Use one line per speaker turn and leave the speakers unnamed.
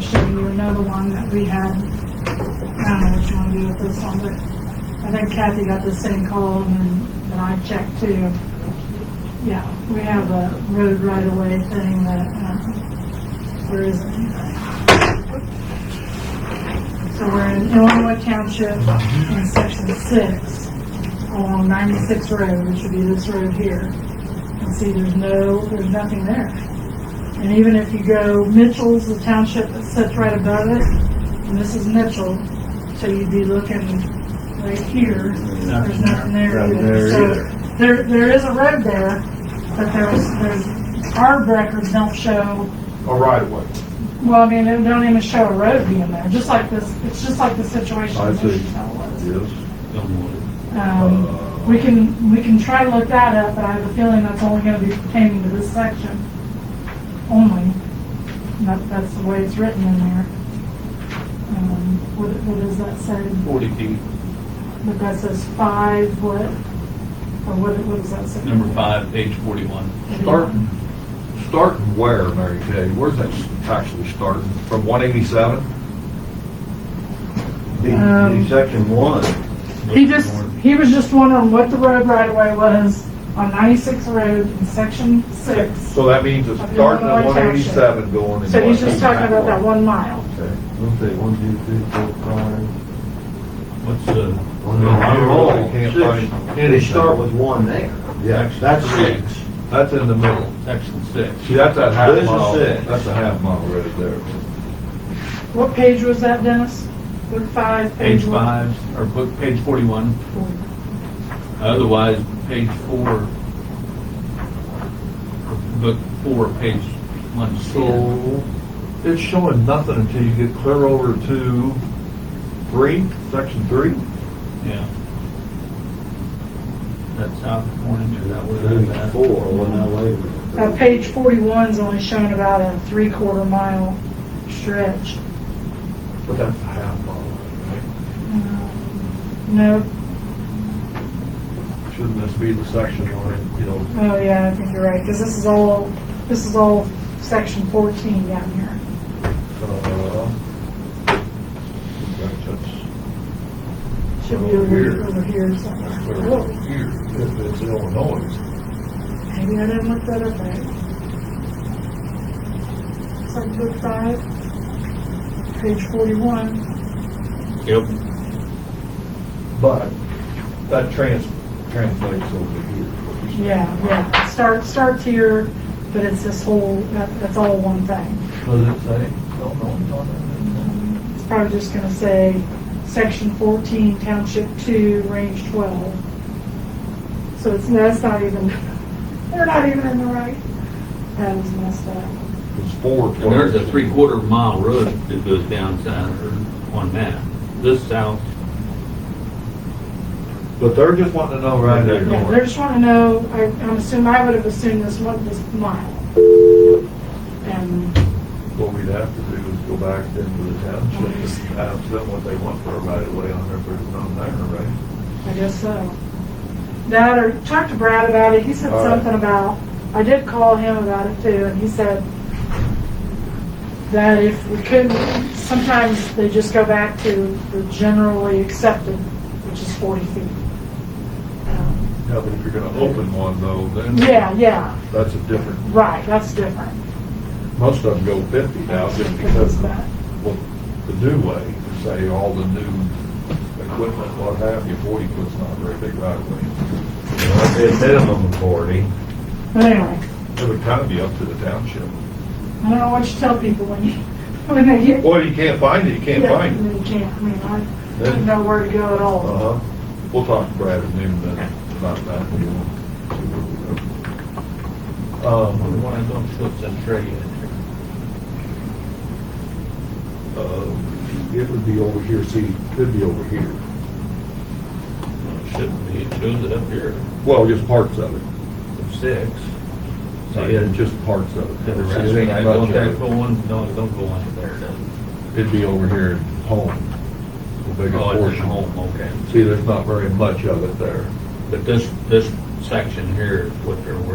show you another one that we had. I don't know what you want to do with this one, but I think Kathy got the same call and then that I checked too. Yeah, we have a road right of way thing that, um, there isn't anything. So we're in Illinois Township in section six along ninety-six road, which would be this road here. And see, there's no, there's nothing there. And even if you go Mitchell's, the township that sits right above it, and this is Mitchell, so you'd be looking right here, there's nothing there
Nothing
either.
there either.
So there, there is a road there, but there's, there's, our records don't show
a right away.
well, I mean, they don't even show a road being there, just like this, it's just like the situation.
I
in
see.
Wichita was.
Yes.
Um, we can, we can try to look that up, but I have a feeling that's only gonna be pertaining to this section only. And That, that's the way it's written in there. Um, what, what does that say?
Forty feet,
But that says five, what, or what, what does that say?
number five, page forty-one.
Starting, starting where, Mary Kay? Where's that actually starting? From 187?
The- Um, the
section one.
He just, he was just wondering what the road right of way was on ninety-six road in section six.
So that means it's starting at 187 going in.
So he's just talking about that one mile.
Don't say one, two, three, four, five.
What's the?
Can't find
They start
anything.
with one there.
Yeah,
That's six.
that's in the middle.
Section six.
See, that's that half
This is
mile,
six.
that's a half mile right there.
What page was that, Dennis? Book five,
Page
page one?
five, or book, page forty-one. Otherwise, page four, book four, page one.
So it's showing nothing until you get clear over to three, section three?
Yeah. That's South California, is that where that's at?
Four, one that way.
Uh, page forty-one's only showing about a three-quarter mile stretch.
But that's a half mile.
Uh, No,
Shouldn't this be the section on it, you know?
oh yeah, I think you're right, because this is all, this is all section fourteen down here.
uh, that's- that's-
Should be over,
Here.
over here
that's
somewhere.
over
Whoa,
here, If it's Illinois.
Oh, Maybe I didn't look that up right. It's like book five, page forty-one.
Yep.
But that trans, translates over here.
Yeah, yeah, start, starts here, but it's this whole, that, that's all one thing.
Does it say Illinois on
It's probably just gonna say, section fourteen, township two, range twelve. So it's, that's not even, they're not even in the right. That was messed up.
it? It's four.
And there's a three-quarter mile road that goes down south or on that. This south,
But they're just wanting to know right there.
Yeah, they're just wanting to know, I, I'm assuming, I would have assumed this one, this mile. And,
What we'd have to do is go back into the township and ask them what they want for a right of way on their, on there, right?
I guess so. That or talk to Brad about it. He said
All right.
something about, I did call him about it too, and he said that if we couldn't, sometimes they just go back to the generally accepted, which is 40 feet. Um,
Yeah, but if you're gonna open one though, then.
Yeah, yeah,
That's a different,
right, that's different.
most of them go fifty now just because of what the new way, say all the new equipment, what have you, forty foot's not a very big right of way.
A minimum of forty.
But anyway,
It would kind of be up to the township.
I don't know what you tell people when you, when they get.
Well, you can't find it, you can't
Yeah,
find it.
You can't, I mean, I
Yeah.
don't know where to go at all.
Uh-huh. We'll talk to Brad at noon then about that. We'll see where we go. Um,
One of those slips and tray in there.
Uh, It would be over here, see, could be over here.
well, it shouldn't be, it shows it up here,
Well, just parts of it.
six.
So, yeah, just parts of
The
it.
rest,
It ain't
I
much
don't
of
think
it.
go on, no, it don't go on there, does it?
It'd be over here at home. The bigger
Oh, it's in
portion.
home, okay.
See, there's not very much of it there.
But this, this section here is what they're working